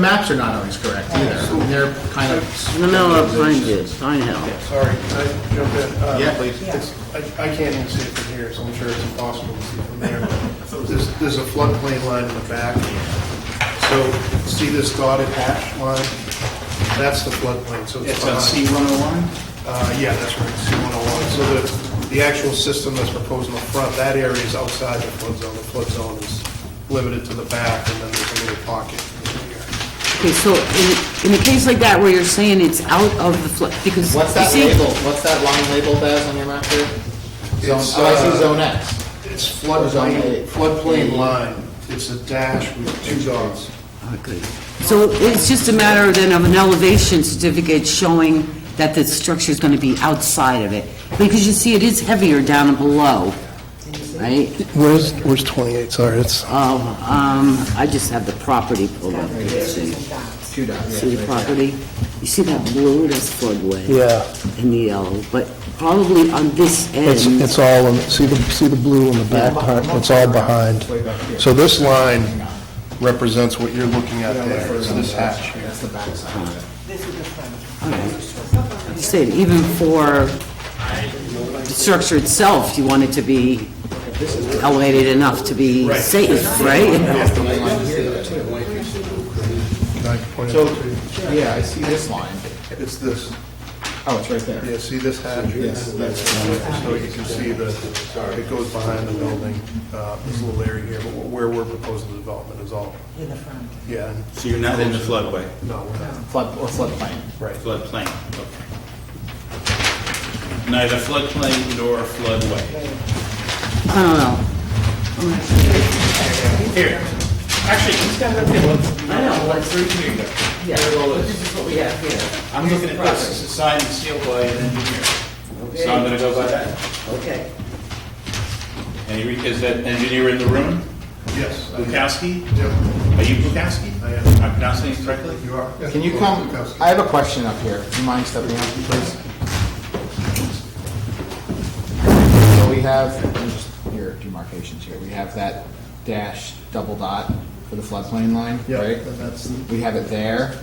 maps are not always correct either. I mean, They're kind of. In the middle of Pine View, Pine Hill. Sorry, can I jump in? Uh, Yeah, please. it's- I I can't even see it from here, so I'm sure it's impossible to see from there. There's there's a floodplain line in the back. So see this dotted hatch line? That's the floodplain, so it's It's on behind. C-101? Uh, Yeah, that's right, C-101. So the, the actual system that's proposed in the front, that area is outside the flood zone. The flood zone is limited to the back, and then there's a little pocket in here. Okay, so in, in a case like that where you're saying it's out of the flood, because you What's that see, label, what's that line labeled as on your map here? Zone, It's, oh, I see uh, zone X. It's Zone floodplain, eight. floodplain line. It's a dash with two dots. so it's just a matter then of an elevation certificate showing that the structure's gonna be outside of it. Because you see, it is heavier down below, right? Where's, where's 28? Sorry, it's... Oh, um, I just have the property pulled up here, see, Two dots. see the property? You see that blue, that's floodway, Yeah, and the yellow, but probably on this it's, end. it's all, in- see the, see the blue in the back part, it's all behind. So this line represents what you're looking at there, is this hatch here. That's the backside of it. You said even for the structure itself, you want it to be elevated enough to be safe, right? Can I point it So, out to you? yeah, I see this line. It's this, Oh, it's right there. yeah, see this hatch? Yes. So you can see the, it goes behind the building, uh, this little area here, but where we're proposing the development is all, in the front. yeah, and So you're not in the floodway, no, we're not, Flood, or floodplain. right. floodplain, okay. Neither floodplain nor floodway. I don't know. Here, actually, just gotta look at what- I know, but- Through here you go. Here it all is. is what we have here. I'm looking at this, it's a signed and sealed by an engineer. So I'm gonna go by that. Okay. And you- Is that engineer in the room? Yes. I- Bukowski? Yep, Are you Bukowski? I am. I'm pronouncing it correctly? you are. Can you come, I have a question up here. Do you mind stepping up, please? So we have, let me just- here are demarcations here. We have that dash double dot for the floodplain line, Yeah, right? that's- We have it there,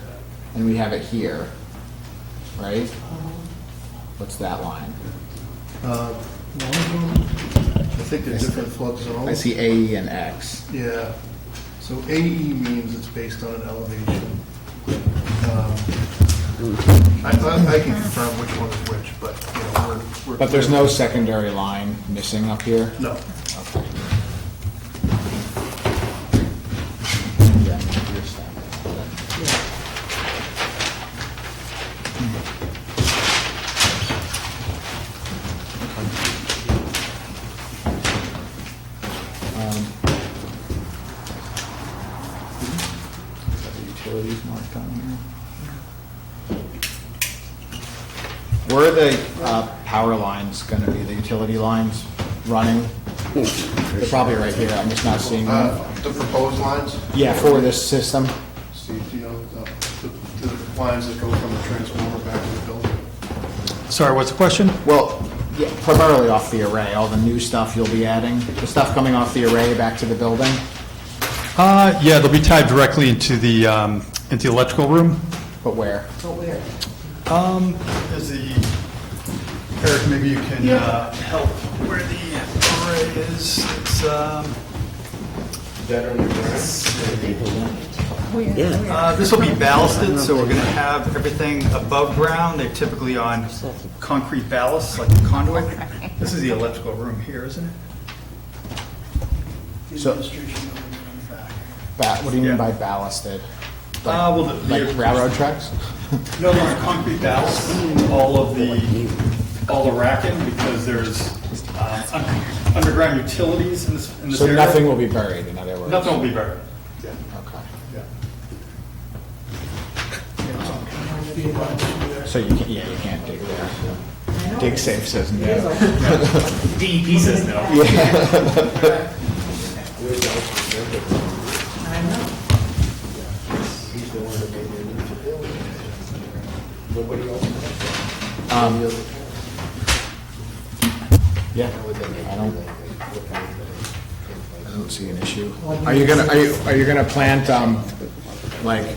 and we have it here, right? What's that line? Uh, one of them, I think they're different flood zones. I see AE and X. Yeah, so AE means it's based on an elevation. Um, I, I I can confirm which one is which, but, you know, we're- we're. But there's no secondary line missing up here? No, Okay. Yeah, you're standing. Is that the utilities marked on here? Where are the uh, power lines going to be, the utility lines running? They're probably right here, I'm just not seeing them. uh, the proposed lines, Yeah, for this system. Steve, do you know, uh, the, the lines that go from the transformer back to the building? Sorry, what's the question? Well, yeah, primarily off the array, all the new stuff you'll be adding, the stuff coming off the array back to the building. Uh, yeah, they'll be tied directly into the, um, into the electrical room. But where? Is the, Eric, maybe you can, uh, help where the array is, it's, um, uh, this will be ballasted, so we're gonna have everything above ground, they're typically on concrete ballasts, like the conduit. This is the electrical room here, isn't it? So- Administration building on the back. Ba- What do you mean Yeah. by ballasted? Uh, well, the- Like the- railroad tracks? No, on concrete ballast, all of the, all the racking, because there's uh, un- underground utilities in this, in this So area. nothing will be buried, in other words? Nothing will be buried. Okay. Yeah. So you can't, yeah, you can't dig there. Dig safe says no. DEP says no. Um, Yeah, I don't, I don't see an issue. Are you gonna, are you, are you gonna plant, um, like,